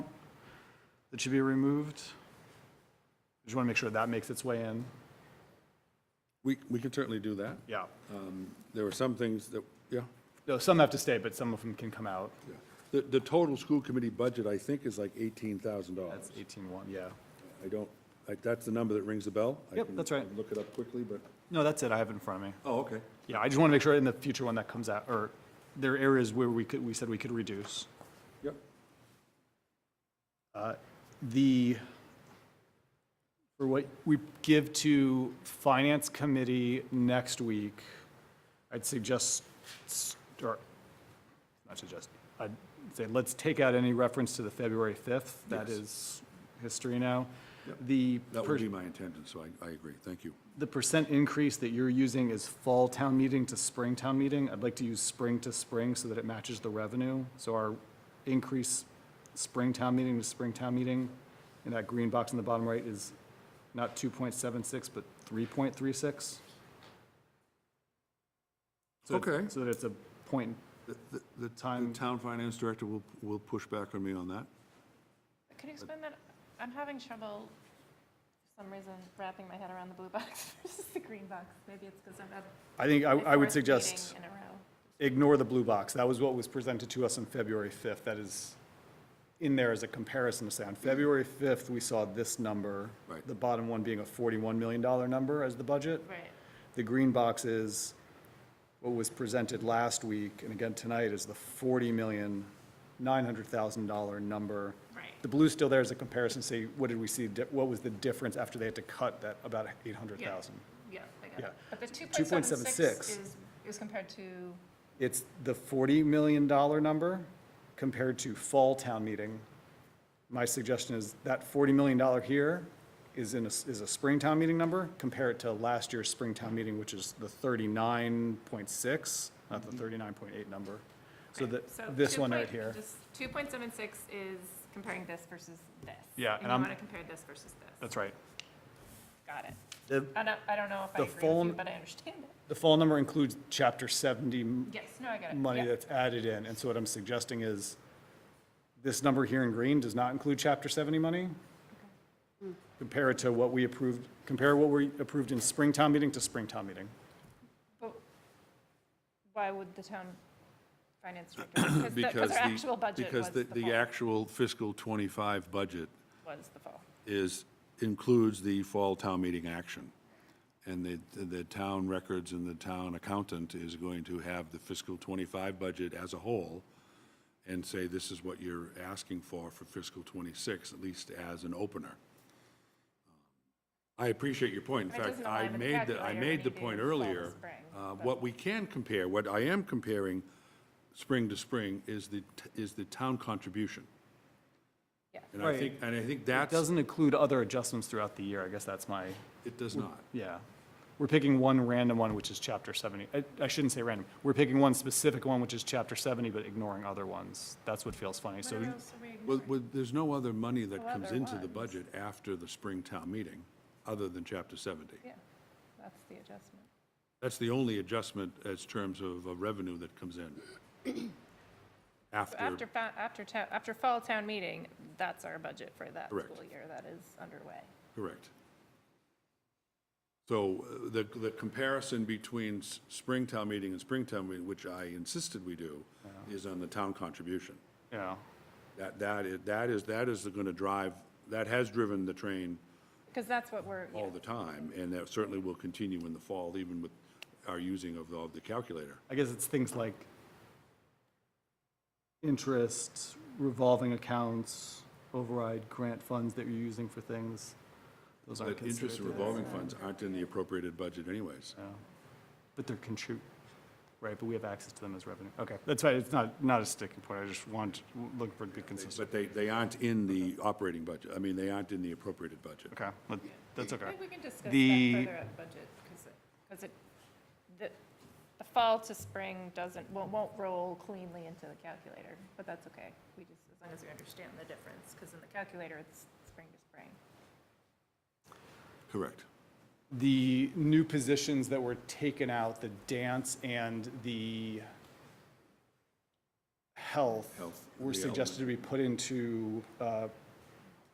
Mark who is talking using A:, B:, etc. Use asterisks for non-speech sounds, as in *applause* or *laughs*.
A: that should be removed? Just want to make sure that makes its way in.
B: We, we can certainly do that.
A: Yeah.
B: Um, There were some things that, yeah,
A: No, some have to stay, but some of them can come out.
B: yeah. The, the total school committee budget, I think, is like eighteen thousand dollars.
A: That's 18-1, yeah.
B: I don't, like, that's the number that rings a bell. I
A: Yep,
B: can-
A: that's right.
B: I can Look it up quickly, but,
A: No, that's it, I have it in front of me.
B: oh, okay.
A: Yeah, I just want to make sure in the future when that comes out, or there are areas where we could, we said we could reduce.
B: Yep.
A: Uh, the, for what we give to Finance Committee next week, I'd suggest, s- or, not suggest, I'd say, let's take out any reference to the February 5th. That
B: Yes.
A: is history now. The,
B: That
A: per-
B: would be my intention, so I, I agree. Thank you.
A: the percent increase that you're using is fall town meeting to spring town meeting. I'd like to use spring to spring so that it matches the revenue. So our increase spring town meeting to spring town meeting in that green box in the bottom right is not 2.76, but 3.36. So it's-
B: Okay.
A: So that it's a point,
B: The- the- The
A: Time-
B: the town finance director will, will push back on me on that.
C: Could you explain that? I'm having trouble, for some reason, wrapping my head around the blue box *laughs* versus the green box. Maybe it's because I'm at.
A: I think I
C: my
A: I would
C: fourth meeting
A: suggest
C: In a row.
A: ignore the blue box. That was what was presented to us on February 5th. That is in there as a comparison to say, on February 5th, we saw this number.
B: Right.
A: The bottom one being a $41 million number as the budget.
C: Right.
A: The green box is what was presented last week, and again tonight, is the $40,900,000 number.
C: Right.
A: The blue's still there as a comparison, say, what did we see, di- what was the difference after they had to cut that about 800,000?
C: Yeah, I
A: Yeah.
C: got it. But the two point seven
A: 2.76.
C: six is, is compared to,
A: It's the $40 million number compared to fall town meeting. My suggestion is that $40 million here is in, a is a spring town meeting number. Compare it to last year's spring town meeting, which is the 39.6, not the 39.8 number. So
C: Mm-hmm. right,
A: that,
C: so
A: this
C: two
A: one right
C: point-
A: here.
C: just Two point seven six is comparing this versus this.
A: Yeah, and
C: And you
A: I'm-
C: want to compare this versus this.
A: That's right.
C: Got it.
A: The,
C: I don't, I don't know if I
A: The
C: agree with
A: phone-
C: you, but I understand it.
A: the fall number includes chapter 70
C: Yes, no, I got it.
A: money
C: Yeah.
A: that's added in. And so what I'm suggesting is, this number here in green does not include Chapter 70 money. Compare it to what we approved, compare what we approved in spring town meeting to spring town meeting.
C: But Why would the town finance director? Because
B: Because the-
C: the- our actual budget was
B: Because
C: the
B: the, the
C: fall,
B: actual fiscal twenty-five budget
C: was the fall.
B: is, includes the fall town meeting action. And the, the town records and the town accountant is going to have the fiscal twenty-five budget as a whole and say, this is what you're asking for for fiscal twenty-six, at least as an opener. I appreciate your point. In
C: And it
B: fact,
C: doesn't
B: I
C: align with the
B: made, the
C: calculator
B: I
C: when
B: made
C: you
B: the
C: do
B: point
C: fall to
B: earlier.
C: spring,
B: uh,
C: but-
B: What we can compare, what I am comparing, spring to spring, is the, t- is the town contribution.
C: Yeah.
B: And I think, and I think that's,
A: Doesn't include other adjustments throughout the year, I guess that's my,
B: it does not.
A: yeah. We're picking one random one, which is Chapter 70. I- I shouldn't say random. We're picking one specific one, which is Chapter 70, but ignoring other ones. That's what feels funny. So
B: Well, well, there's no other money that
C: Well,
B: comes
C: there
B: into the
C: was.
B: budget after the spring town meeting, other than chapter 70.
C: Yeah, that's the adjustment.
B: That's the only adjustment as terms of uh, revenue that comes in.
C: *coughs* So
B: After,
C: after, fa- after, town- after fall town meeting, that's our budget for that
B: Correct.
C: school year that is underway.
B: correct. So uh, the, the comparison between s- spring town meeting and spring town meeting, which I insisted we do,
C: Uh-huh.
B: is on the town contribution.
A: Yeah,
B: That, that is, that is, that is going to drive, that has driven the train
C: Because that's what we're, yeah.
B: all the time, and that certainly will continue in the fall, even with our using of the- of the calculator.
A: I guess it's things like interest, revolving accounts, override grant funds that you're using for things. Those aren't
B: But interest and
A: considered,
B: revolving funds aren't in the appropriated budget anyways.
A: but they're contrib, right, but we have access to them as revenue. Okay, that's right, it's not, not a sticking point, I just want, look for it to be consistent.
B: But they, they aren't in the operating budget, I mean, they aren't in the appropriated budget.
A: Okay, but that's
C: I
A: okay.
C: think we can discuss that
A: The-
C: further at budget, because it, because it, the, the fall to spring doesn't, won't, won't roll cleanly into the calculator, but that's okay. We just, as long as we understand the difference, because in the calculator, it's spring to spring.
B: Correct.
A: The new positions that were taken out, the dance and the health,
B: Health,
A: were
B: the
A: suggested to be put into uh,